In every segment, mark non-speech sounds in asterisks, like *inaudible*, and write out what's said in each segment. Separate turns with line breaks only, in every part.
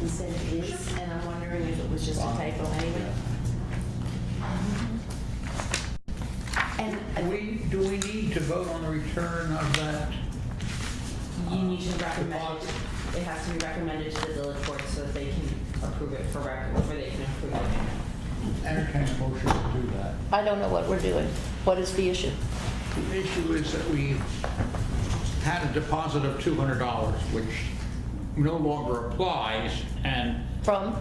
he said it is, and I'm wondering if it was just a typo anyway. And uh,
We, do we need to vote on the return of that?
you need to recommend,
Deposit.
it has to be recommended to the village board so that they can approve it for record, or they can approve it.
Entertain a motion to do that.
I don't know what we're doing. What is the issue?
The issue is that we had a deposit of $200, which no longer applies, and
From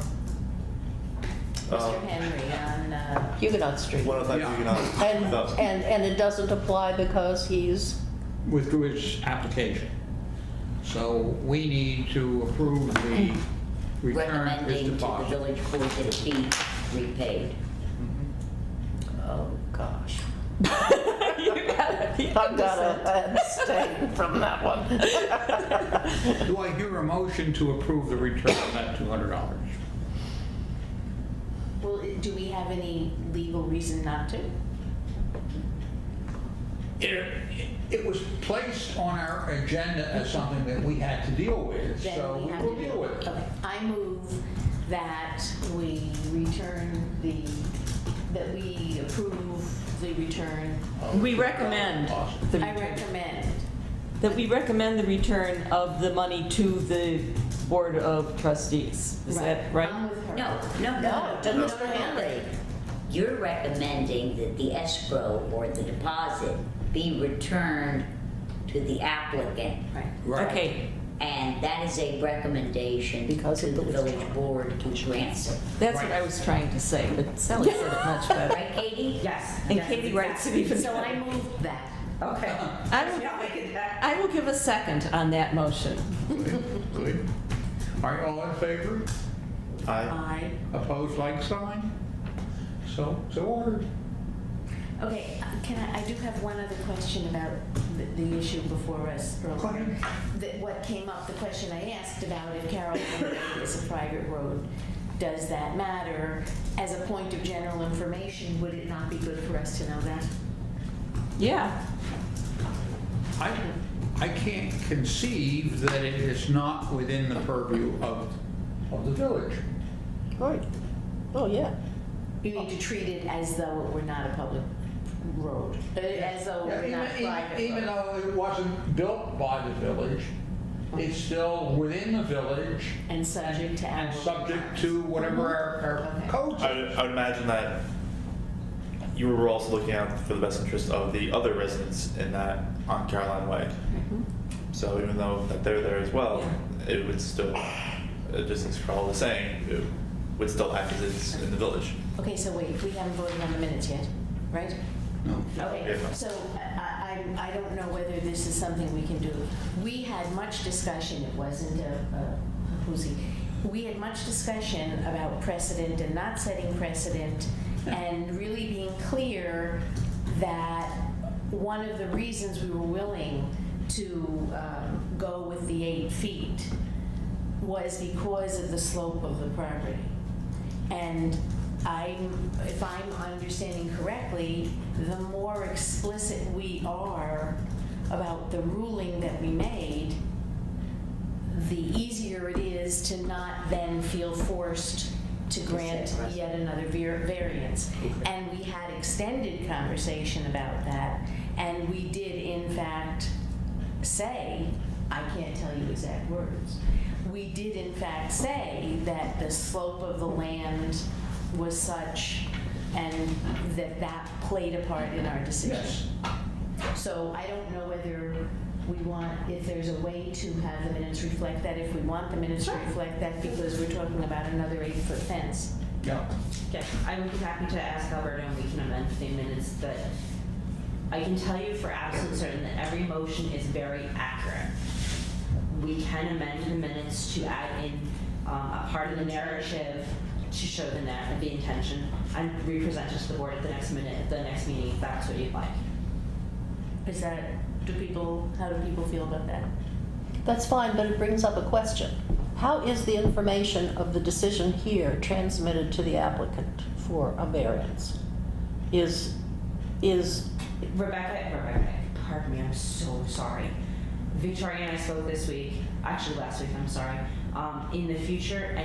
Mr. Henry on, uh,
Huguenot Street.
One of the
Yeah.
you know,
And,
no.
and, and it doesn't apply because he's,
withdrew his application. So we need to approve the return of his
recommending to the
deposit.
village board that it be repaid.
oh, *laughs* gosh. I've got to abstain from that one.
Do I hear a motion to approve the return of that $200?
well, do we have any legal reason not to?
It it was placed on our agenda as something that we had to deal with,
Then
so
we
we
have
will
to-
deal with it.
Okay, I move that we return the, that we approve the return.
We recommend the
I
return,
recommend,
that we recommend the return of the money to the Board of Trustees. Is that
I'm
right?
with her.
No, no, no,
No, to
no,
Mr. Hanley.
You're recommending that the escrow or the deposit be returned to the applicant.
Right.
Right.
Okay,
And that is a recommendation
Because
to
of
the
the
village board to grant it.
that's what I was trying to say, but Sally said it much
*laughs*
better.
Right, Katie?
Yes.
And
yes,
Katie writes it
exactly.
even
So I
better.
moved that. Okay.
I will- I will give a second on that motion.
Good. Are you all in favor?
I,
I,
Opposed, like sign? So, so ordered.
okay, uh, can I, I do have one other question about the, the issue before us earlier. That what came up, the question I asked about if Carroll Lane Road is a private road, does that matter? As a point of general information, would it not be good for us to know that?
Yeah,
I, I can't conceive that it is not within the purview of, of the village.
Right. Oh, yeah.
You need to treat it as though it were not a public road, uh, as though it were
Yeah, even-
not
even-
private.
Even
road.
though it wasn't built by the village, it's still within the village
And subject to our.
and subject to whatever our, our
Okay.
codes.
I,
are.
would- I would imagine that you were also looking out for the best interest of the other residents in that on Caroline Way.
Mm-hmm.
So even though that they're there as well, it would still, uh, just as Carl was saying, it would still act as it's in the village.
Okay, so wait, we haven't voted on the minutes yet, right?
No.
Okay,
Yeah.
so uh, I, I, I don't know whether this is something we can do. We had much discussion, it wasn't a, a hoozy. We had much discussion about precedent and not setting precedent and really being clear that one of the reasons we were willing to um, go with the eight feet was because of the slope of the property. And I'm, if I'm understanding correctly, the more explicit we are about the ruling that we made, the easier it is to not then feel forced to grant yet another var- variance. And we had extended conversation about that, and we did in fact say, I can't tell you exact words, we did in fact say that the slope of the land was such and that that played a part in our decision.
Yes.
So I don't know whether we want, if there's a way to have the minutes reflect that, if we want the minutes to reflect that, because we're talking about another eight-foot fence.
Yeah.
Okay, I'm happy to ask Alberto and we can amend the minutes, but I can tell you for absolute certain that every motion is very accurate. We can amend the minutes to add in um, a part of the narrative to show the na- the intention and re-present it to the board at the next minute, the next meeting, if that's what you'd like.
Is that, do people, how do people feel about that?
That's fine, but it brings up a question. How is the information of the decision here transmitted to the applicant for a variance? Is, is,
Rebecca, Rebecca, pardon me, I'm so sorry. Victoria and I spoke this week, actually last week, I'm sorry. Um, In the future,